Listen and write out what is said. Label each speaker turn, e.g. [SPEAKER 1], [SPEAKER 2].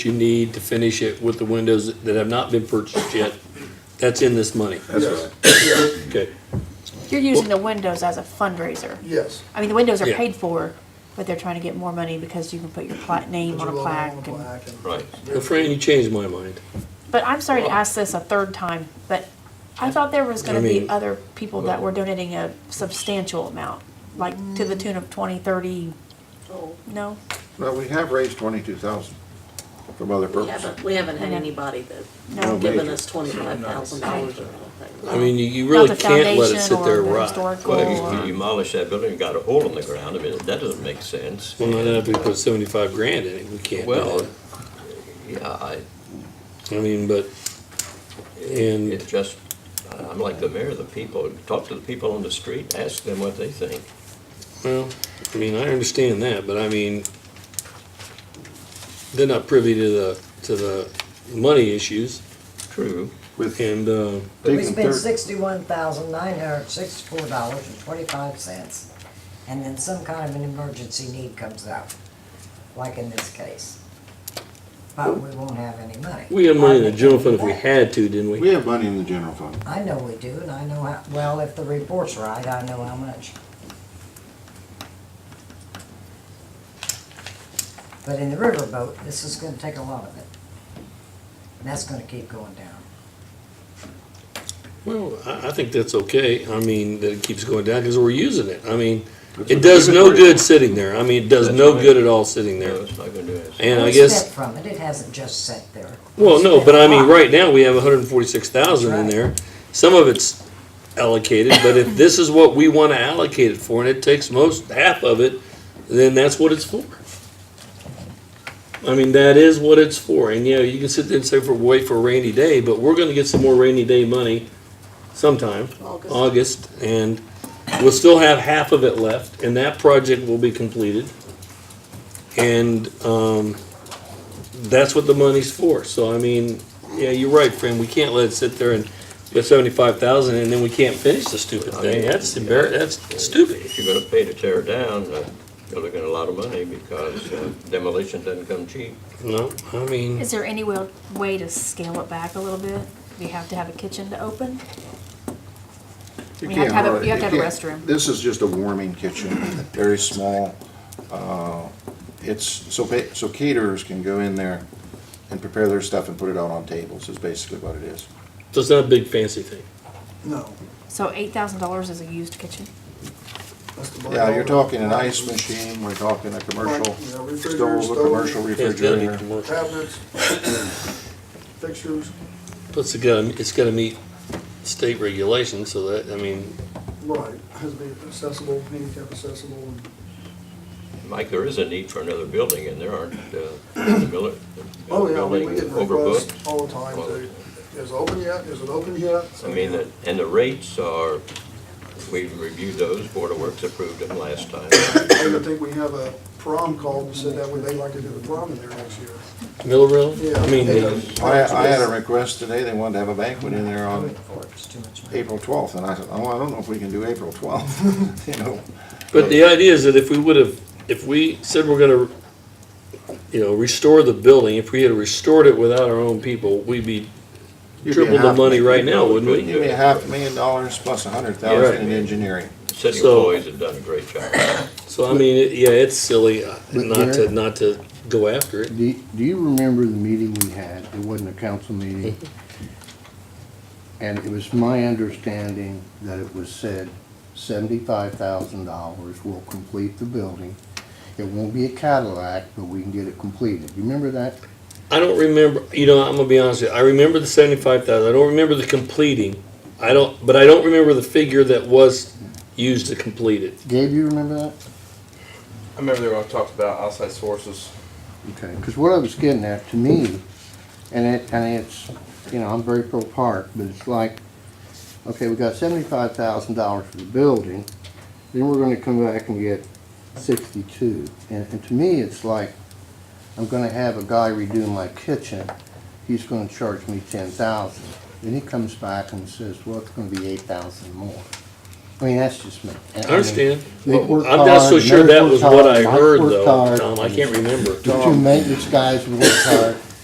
[SPEAKER 1] you need to finish it with the windows that have not been purchased yet, that's in this money.
[SPEAKER 2] That's
[SPEAKER 3] Yes,
[SPEAKER 1] Okay.
[SPEAKER 4] You're using the windows as a fundraiser.
[SPEAKER 3] yes.
[SPEAKER 4] I mean, the windows are
[SPEAKER 1] Yeah.
[SPEAKER 4] paid for, but they're trying to get more money because you can put your pla- name
[SPEAKER 3] Put
[SPEAKER 4] on
[SPEAKER 3] your
[SPEAKER 4] a
[SPEAKER 3] logo
[SPEAKER 4] plaque.
[SPEAKER 3] on a
[SPEAKER 4] and-
[SPEAKER 3] plaque and-
[SPEAKER 2] Right.
[SPEAKER 1] Well, Fran, you changed my mind.
[SPEAKER 4] But I'm sorry to ask this a third time, but I thought there was
[SPEAKER 1] I
[SPEAKER 4] gonna
[SPEAKER 1] mean-
[SPEAKER 4] be other people that were donating a substantial amount, like to the tune of twenty, thirty, no?
[SPEAKER 5] Well, we have raised twenty-two thousand from other
[SPEAKER 6] We
[SPEAKER 5] purposes.
[SPEAKER 6] haven't, we haven't had anybody that's
[SPEAKER 4] No.
[SPEAKER 6] given us twenty-five thousand dollars or anything.
[SPEAKER 1] I mean, you- you
[SPEAKER 4] Not
[SPEAKER 1] really
[SPEAKER 4] the
[SPEAKER 1] can't let it
[SPEAKER 4] foundation
[SPEAKER 1] sit there
[SPEAKER 4] or the
[SPEAKER 1] rot.
[SPEAKER 4] historical
[SPEAKER 2] Well, you-
[SPEAKER 4] or-
[SPEAKER 2] you demolish that building, you got a hole in the ground, I mean, that doesn't make sense.
[SPEAKER 1] Well, not if we put seventy-five grand in it, we can't do
[SPEAKER 2] Well,
[SPEAKER 1] that.
[SPEAKER 2] yeah, I,
[SPEAKER 1] I mean, but, and,
[SPEAKER 2] it's just, I'm like the mayor, the people, talk to the people on the street, ask them what they think.
[SPEAKER 1] well, I mean, I understand that, but I mean, they're not privy to the, to the money issues,
[SPEAKER 2] True.
[SPEAKER 5] With
[SPEAKER 1] and, uh,
[SPEAKER 7] We
[SPEAKER 5] taking
[SPEAKER 7] spent
[SPEAKER 5] third,
[SPEAKER 7] sixty-one thousand nine hundred sixty-four dollars and twenty-five cents, and then some kind of an emergency need comes up, like in this case. But we won't have any money.
[SPEAKER 1] we had money in the general fund if we had to, didn't
[SPEAKER 5] we
[SPEAKER 1] we?
[SPEAKER 5] have money in the general fund.
[SPEAKER 7] I know we do, and I know how, well, if the report's right, I know how much. But in the riverboat, this is gonna take a lot of it. And that's gonna keep going down.
[SPEAKER 1] Well, I, I think that's okay, I mean, that it keeps going down, because we're using it, I mean,
[SPEAKER 5] That's
[SPEAKER 1] it
[SPEAKER 5] what
[SPEAKER 1] does
[SPEAKER 5] the
[SPEAKER 1] no
[SPEAKER 5] inventory
[SPEAKER 1] good
[SPEAKER 5] is.
[SPEAKER 1] sitting there, I mean, it does
[SPEAKER 2] That's
[SPEAKER 1] no
[SPEAKER 2] right.
[SPEAKER 1] good at all sitting
[SPEAKER 2] No,
[SPEAKER 1] there.
[SPEAKER 2] it's not gonna do anything.
[SPEAKER 1] And I
[SPEAKER 7] We
[SPEAKER 1] guess.
[SPEAKER 7] spent from it, it hasn't just sat there.
[SPEAKER 1] Well, no,
[SPEAKER 7] We
[SPEAKER 1] but I mean,
[SPEAKER 7] spent a lot.
[SPEAKER 1] right now, we have hundred and forty-six thousand in
[SPEAKER 7] Right.
[SPEAKER 1] there. Some of it's allocated, but if this is what we wanna allocate it for, and it takes most, half of it, then that's what it's for. I mean, that is what it's for, and yeah, you can sit there and say for, wait for a rainy day, but we're gonna get some more rainy day money sometime,
[SPEAKER 6] August.
[SPEAKER 1] August, and we'll still have half of it left, and that project will be completed. And, um, that's what the money's for, so I mean, yeah, you're right, friend, we can't let it sit there and get seventy-five thousand and then we can't finish the stupid thing, that's embar, that's stupid.
[SPEAKER 2] If you're gonna pay to tear it down, uh, you're looking at a lot of money because uh, demolition doesn't come cheap.
[SPEAKER 1] No, I mean,
[SPEAKER 4] Is there any way, way to scale it back a little bit? Do you have to have a kitchen to open?
[SPEAKER 5] You
[SPEAKER 4] We have to have a-
[SPEAKER 5] can't really-
[SPEAKER 4] you have to have a
[SPEAKER 5] can't-
[SPEAKER 4] restroom.
[SPEAKER 5] This is just a warming kitchen, very small. Uh, It's, so, ba- so caterers can go in there and prepare their stuff and put it out on tables, is basically what it is.
[SPEAKER 1] so it's not a big fancy thing.
[SPEAKER 3] No.
[SPEAKER 4] So eight thousand dollars is a used kitchen?
[SPEAKER 3] that's the
[SPEAKER 5] Yeah, you're
[SPEAKER 3] bylaw.
[SPEAKER 5] talking an ice machine, we're talking a commercial
[SPEAKER 3] Right, yeah, refrigerator,
[SPEAKER 5] stove, a commercial
[SPEAKER 3] stove.
[SPEAKER 1] It's gotta be
[SPEAKER 5] refrigerator.
[SPEAKER 1] commercial.
[SPEAKER 3] Cabinets, fixtures,
[SPEAKER 1] Plus, it's gotta, it's gotta meet state regulations, so that, I mean,
[SPEAKER 3] right, has to be accessible, handicap accessible, and
[SPEAKER 2] Mike, there is a need for another building and there aren't, uh, the miller, the
[SPEAKER 3] Oh, yeah, we
[SPEAKER 2] building
[SPEAKER 3] we get
[SPEAKER 2] overbooked.
[SPEAKER 3] requests all the time, too. Is it open yet? Is it open yet?
[SPEAKER 2] I mean, that- and the rates are, we reviewed those, Board of Works approved them last time.
[SPEAKER 3] I even think we have a prom called and said that would they like to do the prom in there next year.
[SPEAKER 1] Millerville,
[SPEAKER 3] Yeah.
[SPEAKER 1] I mean,
[SPEAKER 3] Yeah.
[SPEAKER 1] the-
[SPEAKER 5] I, I had a request today, they wanted to have a banquet in there
[SPEAKER 7] Do
[SPEAKER 5] on
[SPEAKER 7] it for it, it's too much money.
[SPEAKER 5] April twelfth, and I said, oh, I don't know if we can do April twelfth, you know.
[SPEAKER 1] but the idea is that if we would've, if we said we're gonna, you know, restore the building, if we had restored it without our own people, we'd be
[SPEAKER 5] You'd be
[SPEAKER 1] triple the
[SPEAKER 5] half-
[SPEAKER 1] money right now, wouldn't we?
[SPEAKER 5] You'd be a half million dollars plus a hundred thousand in
[SPEAKER 2] Yeah.
[SPEAKER 5] engineering.
[SPEAKER 2] City
[SPEAKER 1] So-
[SPEAKER 2] employees have done a great job.
[SPEAKER 1] So I mean, it- yeah, it's silly uh,
[SPEAKER 8] But
[SPEAKER 1] not to,
[SPEAKER 8] Gary-
[SPEAKER 1] not to go after it.
[SPEAKER 8] Do, do you remember the meeting we had? It wasn't a council meeting. And it was my understanding that it was said seventy-five thousand dollars will complete the building. It won't be a Cadillac, but we can get it completed. You remember that?
[SPEAKER 1] I don't remember, you know, I'm gonna be honest with you, I remember the seventy-five thousand, I don't remember the completing. I don't, but I don't remember the figure that was used to complete it.
[SPEAKER 8] Gabe, you remember that?
[SPEAKER 9] I remember they were all talked about outside sources.
[SPEAKER 8] Okay, because what I was getting at, to me, and it, and it's, you know, I'm very pro park, but it's like, okay, we got seventy-five thousand dollars for the building, then we're gonna come back and get sixty-two. And, and to me, it's like, I'm gonna have a guy redo my kitchen, he's gonna charge me ten thousand. Then he comes back and says, well, it's gonna be eight thousand more. I mean, that's just me.
[SPEAKER 1] I understand.
[SPEAKER 8] They worked
[SPEAKER 1] I'm not so
[SPEAKER 8] hard,
[SPEAKER 1] sure that
[SPEAKER 8] Mary
[SPEAKER 1] was
[SPEAKER 8] worked
[SPEAKER 1] what I
[SPEAKER 8] hard, Mike
[SPEAKER 1] heard
[SPEAKER 8] worked
[SPEAKER 1] though,
[SPEAKER 8] hard.
[SPEAKER 1] Tom, I can't remember.
[SPEAKER 8] The two maintenance guys worked hard,